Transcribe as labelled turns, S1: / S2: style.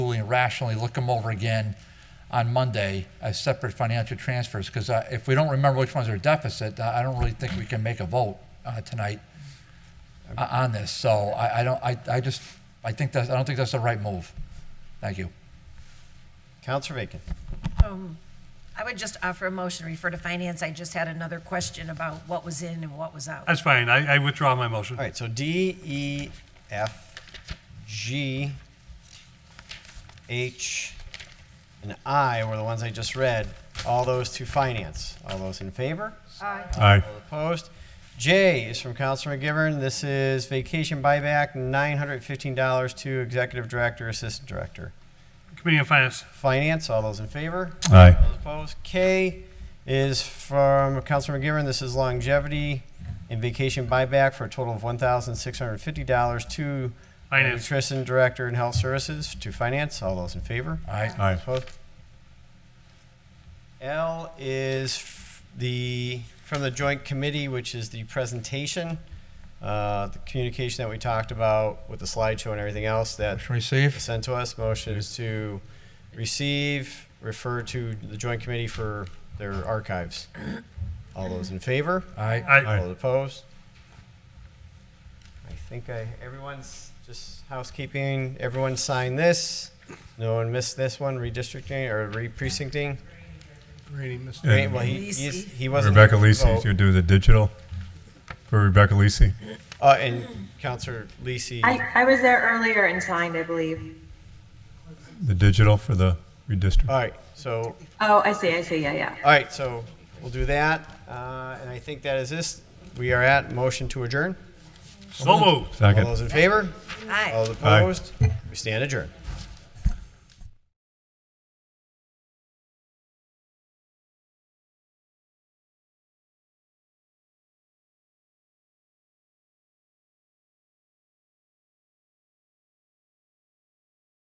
S1: rationally look them over again on Monday as separate financial transfers, because if we don't remember which ones are deficit, I I don't really think we can make a vote uh, tonight o- on this. So I, I don't, I, I just, I think that's, I don't think that's the right move. Thank you.
S2: Counselor Bacon.
S3: I would just offer a motion, refer to finance. I just had another question about what was in and what was out.
S4: That's fine. I, I withdraw my motion.
S2: All right, so D, E, F, G, H, and I were the ones I just read. All those to finance. All those in favor?
S4: Aye.
S2: All opposed? J is from Counselor McGivern. This is vacation buyback, $915 to executive director, assistant director.
S4: Committee on Finance.
S2: Finance, all those in favor?
S4: Aye.
S2: All opposed? K is from Counselor McGivern. This is longevity and vacation buyback for a total of $1,650 to
S4: Finance.
S2: nutrition director and health services to finance. All those in favor?
S1: All right.
S2: All opposed? L is f- the, from the joint committee, which is the presentation, uh, the communication that we talked about with the slideshow and everything else that
S1: Motion received.
S2: sent to us. Motion is to receive, refer to the joint committee for their archives. All those in favor?
S1: All right.
S4: Aye.
S2: All opposed? I think I, everyone's just housekeeping, everyone signed this. No one missed this one, redistricting or re-precincting. Great, Well, he, he's- he wasn't. here
S5: Rebecca
S2: to
S5: Lisi
S2: vote.
S5: to do the digital for Rebecca Lisi.
S2: Uh, and Counselor Lisi.
S6: I, I was there earlier and signed, I believe.
S5: The digital for the redistrict.
S2: All right, so
S6: Oh, I see, I see, yeah, yeah.
S2: All right, so we'll do that, uh, and I think that is this. We are at motion to adjourn.
S4: So moved.
S2: All
S5: Second.
S2: those in favor?
S3: Aye.
S2: All opposed? We stand adjourned.